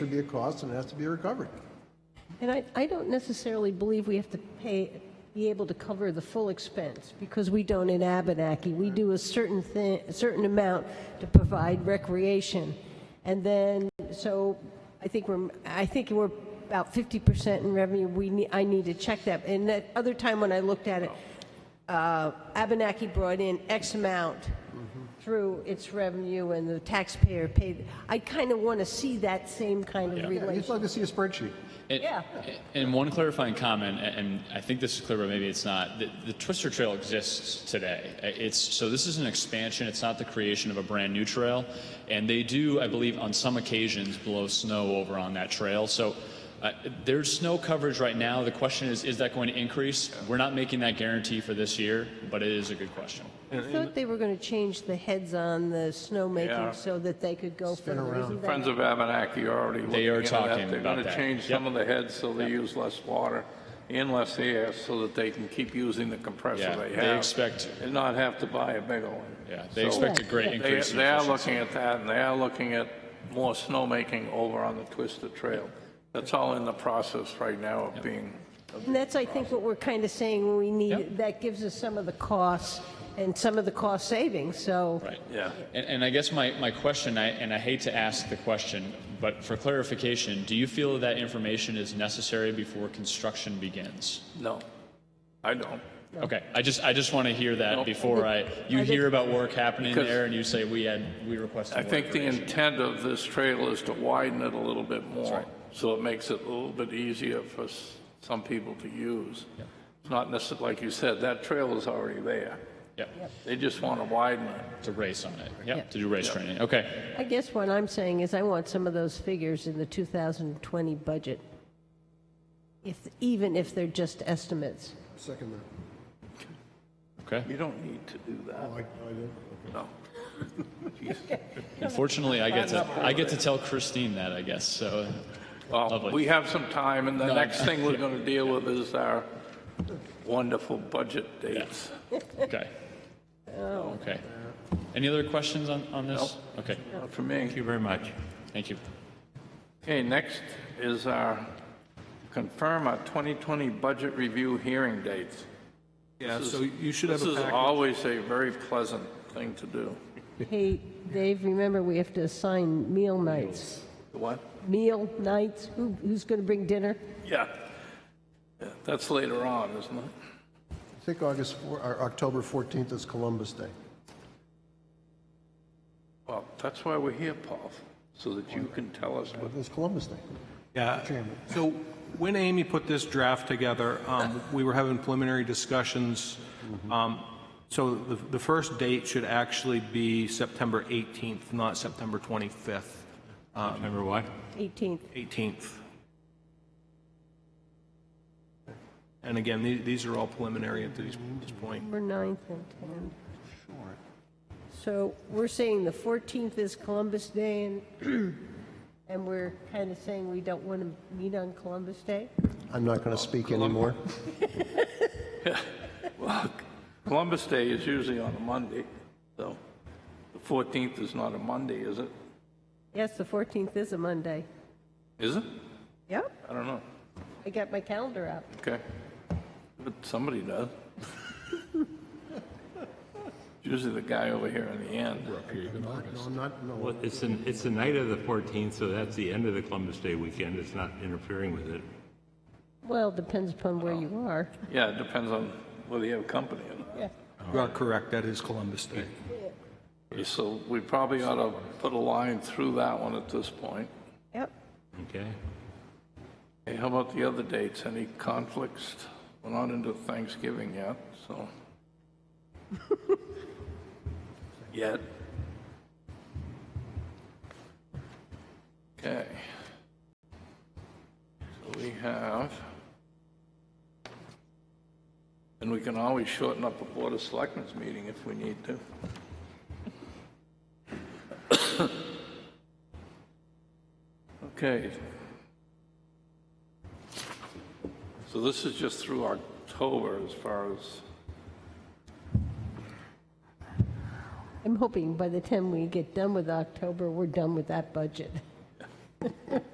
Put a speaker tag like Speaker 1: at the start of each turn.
Speaker 1: to be a cost and it has to be recovered.
Speaker 2: And I, I don't necessarily believe we have to pay, be able to cover the full expense, because we don't in Abenaki. We do a certain thing, a certain amount to provide recreation. And then, so I think we're, I think we're about 50% in revenue. We, need I need to check that. And that other time when I looked at it, uh, Abenaki brought in X amount through its revenue and the taxpayer paid. I kind of want to see that same kind of
Speaker 1: Yeah, You'd
Speaker 2: relation.
Speaker 1: like to see a spreadsheet.
Speaker 3: And,
Speaker 2: Yeah.
Speaker 3: and one clarifying comment, a- and I think this is clear, but maybe it's not. The, the Twister Trail exists today. Uh, It's so this is an expansion. It's not the creation of a brand new trail, and they do, I believe, on some occasions blow snow over on that trail. So. Uh, there's snow coverage right now. The question is, is that going to increase? We're not making that guarantee for this year, but it is a good question.
Speaker 2: I thought they were going to change the heads on the
Speaker 4: Yeah.
Speaker 2: snowmaking so that they could go further. Isn't that-
Speaker 4: Friends of Abenaki are already looking
Speaker 3: They are
Speaker 4: into that.
Speaker 3: talking
Speaker 4: They're
Speaker 3: about
Speaker 4: going to
Speaker 3: that.
Speaker 4: change
Speaker 3: Yep.
Speaker 4: some of the heads so they use less water and less air so that they can keep using the compressor
Speaker 3: Yeah,
Speaker 4: they
Speaker 3: they
Speaker 4: have.
Speaker 3: expect-
Speaker 4: And not have to buy a bigger one.
Speaker 3: Yeah, they
Speaker 4: So
Speaker 3: expect a
Speaker 2: Yeah.
Speaker 3: great
Speaker 2: They-
Speaker 4: They,
Speaker 3: increase. in
Speaker 4: they are
Speaker 3: efficiency.
Speaker 4: looking at that and they are looking at more snowmaking over on the Twisted Trail. That's all in the process right now of being,
Speaker 2: And that's, I think, what we're kind of saying we need,
Speaker 3: Yep.
Speaker 2: that gives us some of the costs and some of the cost savings, so.
Speaker 3: Right.
Speaker 4: yeah.
Speaker 3: And, and I guess my, my question, I, and I hate to ask the question, but for clarification, do you feel that information is necessary before construction begins?
Speaker 4: No, I don't.
Speaker 3: Okay, I just, I just want to hear that
Speaker 4: Nope.
Speaker 3: before I, you
Speaker 2: I think-
Speaker 3: hear about work happening
Speaker 4: Because-
Speaker 3: there and you say we had, we requested
Speaker 4: I
Speaker 3: more
Speaker 4: think the
Speaker 3: information."
Speaker 4: intent of this trail is to widen it a little bit more, so it makes it a little bit easier for s- some people to use. It's not necessarily, like you said, that trail is already there.
Speaker 3: Yep,
Speaker 4: They just want to widen it.
Speaker 3: to race on it,
Speaker 2: Yeah.
Speaker 3: yep, to do race training, okay.
Speaker 2: I guess what I'm saying is I want some of those figures in the 2020 budget, if, even if they're just estimates.
Speaker 1: Second that.
Speaker 3: Okay.
Speaker 4: You don't need to do that,
Speaker 1: Oh, I- I do.
Speaker 4: no.
Speaker 3: Unfortunately, I get to, I get to tell Christine that, I guess, so,
Speaker 4: Well,
Speaker 3: Lovely.
Speaker 4: we have some time, and the
Speaker 3: No,
Speaker 4: next thing we're going to deal with is our wonderful budget dates.
Speaker 3: okay. Okay. Any other questions on, on this? Okay,
Speaker 4: Not For me.
Speaker 5: Thank you very much.
Speaker 3: thank you.
Speaker 4: Okay, next is our, confirm our 2020 budget review hearing dates.
Speaker 5: Yeah,
Speaker 4: This is-
Speaker 5: so you should have a
Speaker 4: This is
Speaker 5: package.
Speaker 4: always a very pleasant thing to do.
Speaker 2: Hey, Dave, remember, we have to assign meal nights.
Speaker 4: What?
Speaker 2: Meal nights, who, who's going to bring dinner?
Speaker 4: Yeah. Yeah, That's later on, isn't it?
Speaker 1: I think August, four- or October 14th is Columbus Day.
Speaker 4: Well, that's why we're here, Paul, so that you can tell us what,
Speaker 1: It's Columbus Day.
Speaker 5: Yeah.
Speaker 1: Chairman.
Speaker 5: So when Amy put this draft together, um, we were having preliminary discussions. Um, So the, the first date should actually be September 18th, not September 25th,
Speaker 6: Remember what?
Speaker 2: 18th.
Speaker 5: 18th. And again, the- these are all preliminary at this this point.
Speaker 2: September 9th and 10th. So we're saying the 14th is Columbus Day, and, and we're kind of saying we don't want to meet on Columbus Day?
Speaker 1: I'm not going to speak anymore.
Speaker 4: well, Columbus Day is usually on a Monday, so the 14th is not a Monday, is it?
Speaker 2: Yes, the 14th is a Monday.
Speaker 4: Is it?
Speaker 2: Yep,
Speaker 4: I don't know.
Speaker 2: I got my calendar out.
Speaker 4: Okay. But somebody does. Usually the guy over here in the end.
Speaker 1: No, I'm not, no.
Speaker 6: Well, it's an, it's the night of the 14th, so that's the end of the Columbus Day weekend. It's not interfering with it.
Speaker 2: Well, depends upon where you are.
Speaker 4: Yeah, it depends on whether you have company or not.
Speaker 2: Yeah.
Speaker 5: You are correct, that is Columbus Day.
Speaker 4: So we probably ought to put a line through that one at this point.
Speaker 2: Yep.
Speaker 6: Okay?
Speaker 4: Hey, how about the other dates? Any conflicts? We're not into Thanksgiving yet, so. Yet. Okay. So we have, and we can always shorten up a Board of Selectmen's meeting if we need to. Okay, So this is just through October as far as,
Speaker 2: I'm hoping by the time we get done with October, we're done with that budget.